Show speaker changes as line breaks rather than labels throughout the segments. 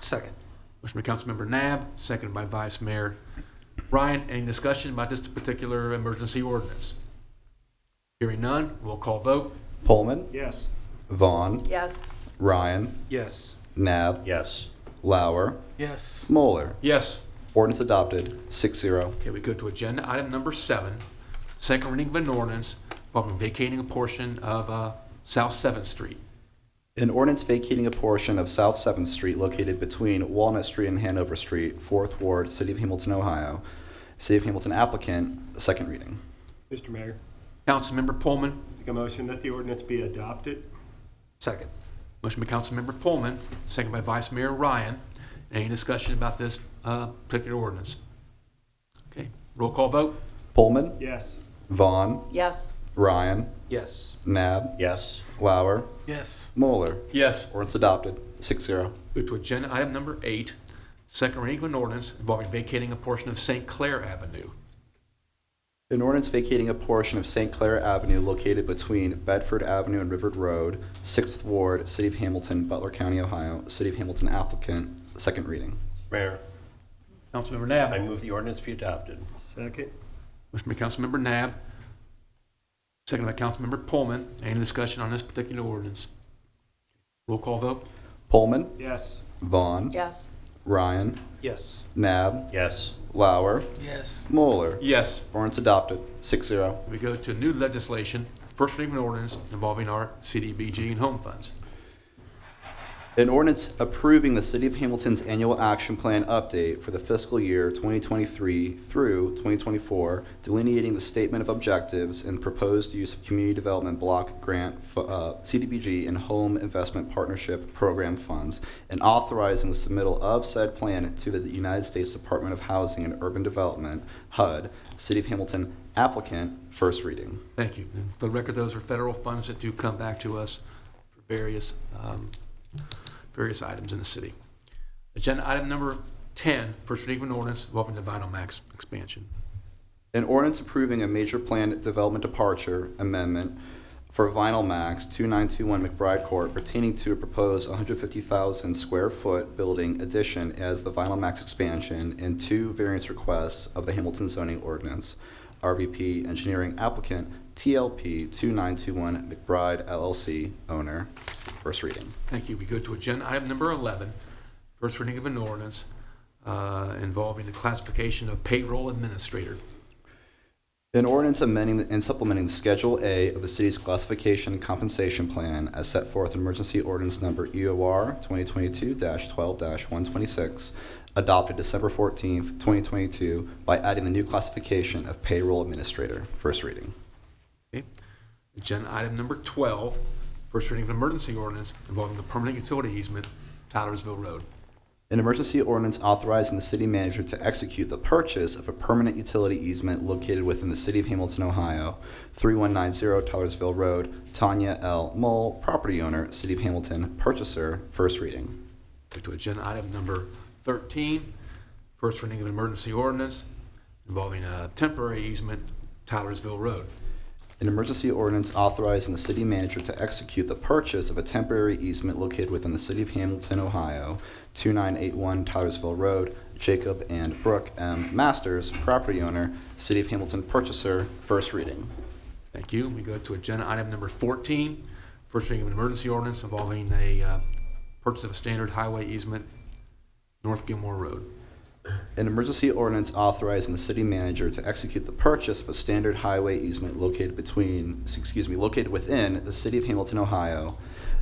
Second.
Motion by Councilmember Nab, seconded by Vice Mayor Ryan. Any discussion about this particular emergency ordinance? Hearing none, roll call vote.
Pullman,
Yes.
Vaughn,
Yes.
Ryan,
Yes.
Nab,
Yes.
Lauer,
Yes.
Moeller.
Yes.
Ordinance adopted, six zero.
Okay, we go to agenda item number seven, second reading of an ordinance involving vacating a portion of uh, South Seventh Street.
An ordinance vacating a portion of South 7th Street located between Walnut Street and Hanover Street, 4th Ward, City of Hamilton, Ohio. City of Hamilton applicant, second reading.
Mr. Mayor,
Councilmember Pullman,
make a motion that the ordinance be adopted.
Second.
motion by Councilmember Pullman, second by Vice Mayor Ryan. Any discussion about this uh, particular ordinance? Okay, roll call vote.
Pullman,
Yes.
Vaughn,
Yes.
Ryan,
Yes.
Nab,
Yes.
Lauer,
Yes.
Moeller.
Yes.
Ordinance adopted, six zero.
Go to agenda item number eight, second reading of an ordinance involving vacating a portion of St. Clair Avenue.
An ordinance vacating a portion of St. Clair Avenue located between Bedford Avenue and River Road, 6th Ward, City of Hamilton, Butler County, Ohio. City of Hamilton applicant, second reading.
Mayor,
Councilmember
I
Nab.
move the ordinance be adopted.
Second.
Motion by Councilmember Nab, second by Councilmember Pullman. Any discussion on this particular ordinance? Roll call vote.
Pullman,
Yes.
Vaughn,
Yes.
Ryan,
Yes.
Nab,
Yes.
Lauer,
Yes.
Moeller.
Yes.
Ordinance adopted, six zero.
We go to new legislation, first reading of an ordinance involving our CDBG and home funds.
An ordinance approving the City of Hamilton's annual action plan update for the fiscal year 2023 through 2024, delineating the statement of objectives and proposed use of community development block grant, fu- uh, CDBG, and home investment partnership program funds, and authorizing the submittal of said plan to the United States Department of Housing and Urban Development, HUD, City of Hamilton applicant, first reading.
Thank you. And For the record, those are federal funds that do come back to us for various, um, various items in the city. Agenda item number 10, first reading of an ordinance involving the Vinyl Max expansion.
An ordinance approving a major plan development departure amendment for Vinyl Max 2921 McBride Court pertaining to a proposed 150,000 square foot building addition as the Vinyl Max expansion and two variance requests of the Hamilton zoning ordinance. RVP Engineering applicant, TLP 2921 McBride LLC owner. First reading.
Thank you. We go to agenda item number 11, first reading of an ordinance uh, involving the classification of payroll administrator.
An ordinance amending and supplementing Schedule A of the city's classification and compensation plan as set forth in emergency ordinance number E EOR 2022-12-126, adopted December 14th, 2022, by adding the new classification of payroll administrator. First reading.
Okay. Agenda item number 12, first reading of an emergency ordinance involving the permanent utility easement, Tylersville Road.
An emergency ordinance authorizing the city manager to execute the purchase of a permanent utility easement located within the city of Hamilton, Ohio, 3190 Tellersville Road, Tanya L. Mole, property owner, city of Hamilton, purchaser. First reading.
Go to agenda item number 13, first reading of an emergency ordinance involving a temporary easement, Tylersville Road.
An emergency ordinance authorizing the city manager to execute the purchase of a temporary easement located within the city of Hamilton, Ohio, 2981 Tylersville Road, Jacob and Brooke M. Masters, property owner, city of Hamilton purchaser, first reading.
Thank you. We go to agenda item number 14, first reading of an emergency ordinance involving a uh, purchase of a standard highway easement, North Gilmore Road.
An emergency ordinance authorizing the city manager to execute the purchase of a standard highway easement located between, excuse me, located within the city of Hamilton, Ohio,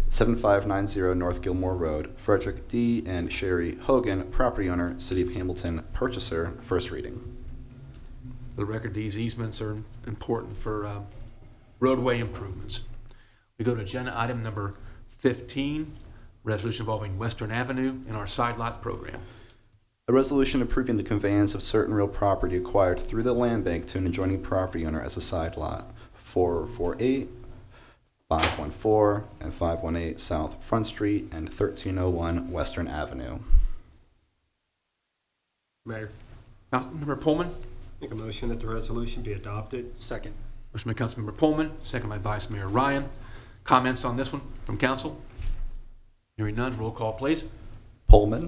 7590 North Gilmore Road, Frederick D. and Sherry Hogan, property owner, city of Hamilton, purchaser, first reading.
For the record, these easements are important for uh, roadway improvements. We go to agenda item number 15, resolution involving Western Avenue and our side lot program.
A resolution approving the conveyance of certain real property acquired through the land bank to an adjoining property owner as a side lot, 448, 514, and 518 South Front Street and 1301 Western Avenue.
Mayor,
Councilmember Pullman?
make a motion that the resolution be adopted.
Second.
Motion by Councilmember Pullman, second by Vice Mayor Ryan. Comments on this one from council? Hearing none, roll call, please.
Pullman,